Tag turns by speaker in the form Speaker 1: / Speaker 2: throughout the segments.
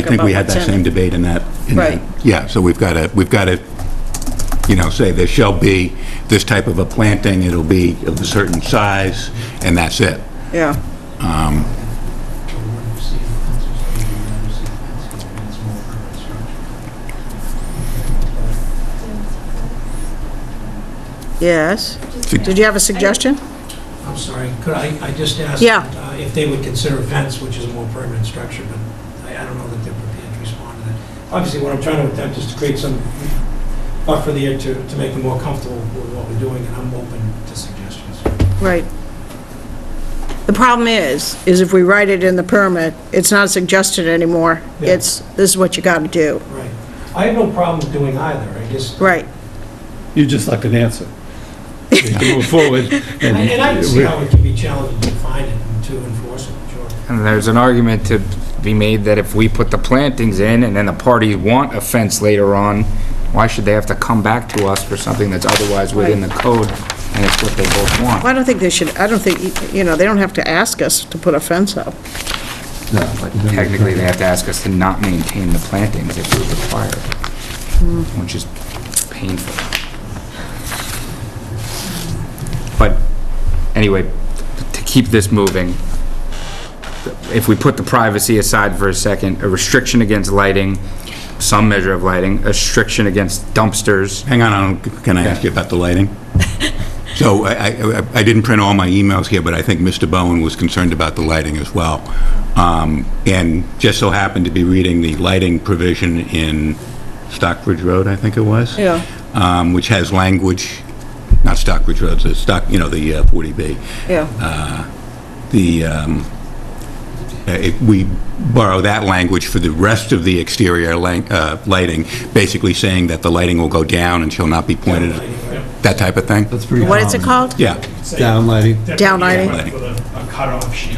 Speaker 1: I think we had that same debate in that. in that-
Speaker 2: Right.
Speaker 1: Yeah, so we've got to, we've got to, you know, say there shall be this type of a planting, it'll be of a certain size, and that's it.
Speaker 2: Yeah, yes. Did you have a suggestion?
Speaker 3: I'm sorry, could I, I just asked
Speaker 2: Yeah.
Speaker 3: uh, if they would consider a fence, which is a more permanent structure, but I I don't know that they're prepared to respond to that. Obviously, what I'm trying to attempt is to create some buffer there to, to make them more comfortable with what we're doing, and I'm open to suggestions.
Speaker 2: Right. The problem is, is if we write it in the permit, it's not suggested anymore.
Speaker 3: Yeah.
Speaker 2: It's, this is what you gotta do.
Speaker 3: Right. I have no problem doing either, I just,
Speaker 2: Right.
Speaker 4: You just like an answer. You can Move forward.
Speaker 3: and and I can see how it can be challenging to find it and to enforce it, sure.
Speaker 5: And there's an argument to be made that if we put the plantings in and then the parties want a fence later on, why should they have to come back to us for something that's otherwise within the code and it's what they both want?
Speaker 2: Well, I don't think they should, I don't think, you know, they don't have to ask us to put a fence up.
Speaker 5: But Technically, they have to ask us to not maintain the plantings if we require it,
Speaker 1: Hmm.
Speaker 5: which is painful. But anyway, to keep this moving, if we put the privacy aside for a second, a restriction against lighting, some measure of lighting, a restriction against dumpsters.
Speaker 1: Hang on, I don't- can I ask you about the lighting? So I- I I- I didn't print all my emails here, but I think Mr. Bowen was concerned about the lighting as well, Um, and just so happened to be reading the lighting provision in Stockbridge Road, I think it was?
Speaker 2: Yeah.
Speaker 1: um, Which has language, not Stockbridge Road, it's Stock, you know, the uh, 40B.
Speaker 2: Yeah.
Speaker 1: The, um, uh, it- we borrow that language for the rest of the exterior lang- uh, lighting, basically saying that the lighting will go down and shall not be pointed, that type of thing?
Speaker 4: That's pretty
Speaker 2: What is it
Speaker 4: common.
Speaker 2: called?
Speaker 1: Yeah,
Speaker 4: Downlighting.
Speaker 2: Down lighting.
Speaker 6: With a a cutoff shield.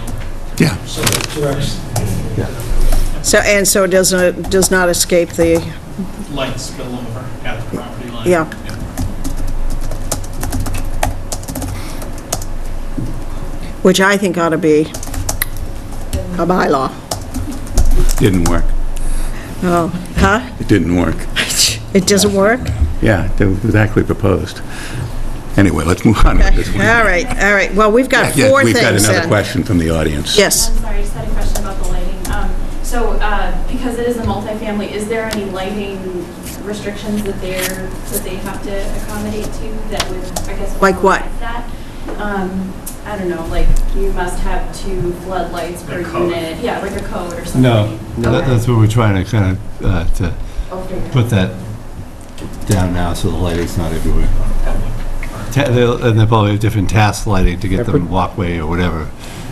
Speaker 1: yeah.
Speaker 3: So it directs
Speaker 2: So, and so it doesn't, does not escape the,
Speaker 6: Lights spill over at the property line.
Speaker 2: Yeah. which I think ought to be a bylaw.
Speaker 1: Didn't work.
Speaker 2: Oh, huh?
Speaker 1: It didn't work.
Speaker 2: It doesn't work?
Speaker 1: Yeah, it was actually proposed. Anyway, let's move on with this
Speaker 2: All
Speaker 1: one.
Speaker 2: right, all right. Well, we've got
Speaker 1: Yeah,
Speaker 2: four things
Speaker 1: We've got another
Speaker 2: then.
Speaker 1: question from the audience.
Speaker 2: Yes.
Speaker 7: I'm sorry, I just had a question about the lighting. Um, So, uh, because it is a multifamily, is there any lighting restrictions that they're, that they have to accommodate to that would, I guess...
Speaker 2: Like what?
Speaker 7: override that? Um, I don't know, like, you must have two floodlights per unit. Yeah, like a code or something.
Speaker 4: No, that- that's what we're trying to kind of, uh, to put that down now so the lighting's not everywhere. Ta- they'll- And they probably have different task lighting to get them walkway or whatever,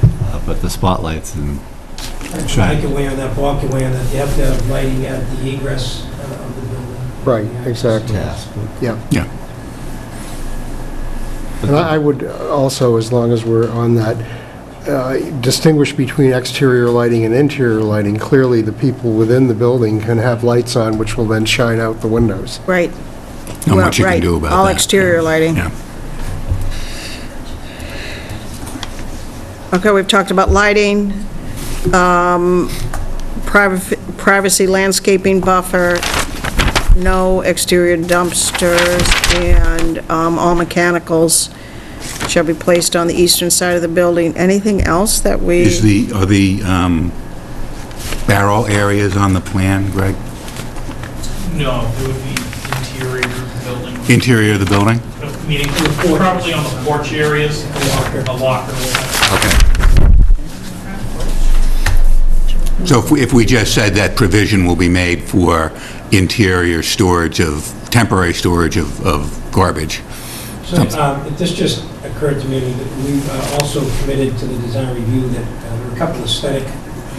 Speaker 4: uh, but the spotlights and
Speaker 3: Bike away on that, walk away on that, you have to have lighting at the egress uh, of the building.
Speaker 8: Right,
Speaker 3: Yeah.
Speaker 8: exactly.
Speaker 4: task.
Speaker 8: Yeah.
Speaker 1: Yeah.
Speaker 8: And I I would uh, also, as long as we're on that, uh, distinguish between exterior lighting and interior lighting. Clearly, the people within the building can have lights on, which will then shine out the windows.
Speaker 2: Right.
Speaker 1: Not
Speaker 2: Well,
Speaker 1: much you can
Speaker 2: right.
Speaker 1: do about that.
Speaker 2: All exterior lighting.
Speaker 1: Yeah.
Speaker 2: Okay, we've talked about lighting, um, privacy privacy landscaping buffer, no exterior dumpsters, and um, all mechanicals shall be placed on the eastern side of the building. Anything else that we...
Speaker 1: Is the, are the um, barrel areas on the plan, Greg?
Speaker 6: No, it would be interior of the building,
Speaker 1: Interior of the building?
Speaker 6: meaning probably on the porch areas, a locker, a locker.
Speaker 1: Okay. So if we, if we just said that provision will be made for interior storage of, temporary storage of, of garbage,
Speaker 3: So, um, if this just occurred to me, that we uh, also committed to the design review that uh, there were a couple of aesthetic,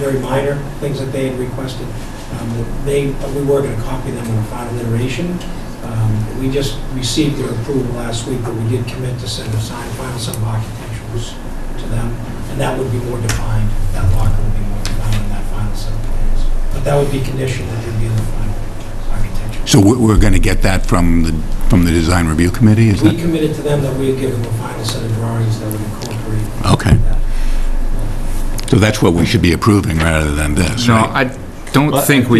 Speaker 3: very minor things that they had requested. um, that They, uh, we were going to copy them in the final iteration. Um, We just received their approval last week, but we did commit to send a signed final set of architecturals to them, and that would be more defined. That locker would be more defined in that final set of plans. But that would be conditioned that would be in the final architecture.
Speaker 1: so we're, we're going to get that from the, from the design review committee, is
Speaker 3: We
Speaker 1: that?
Speaker 3: committed to them that we would give them a final set of drawings that would incorporate
Speaker 1: Okay,
Speaker 3: that.
Speaker 1: so that's what we should be approving rather than this,
Speaker 5: No,
Speaker 1: right?
Speaker 5: I, don't
Speaker 4: Well, I
Speaker 5: think we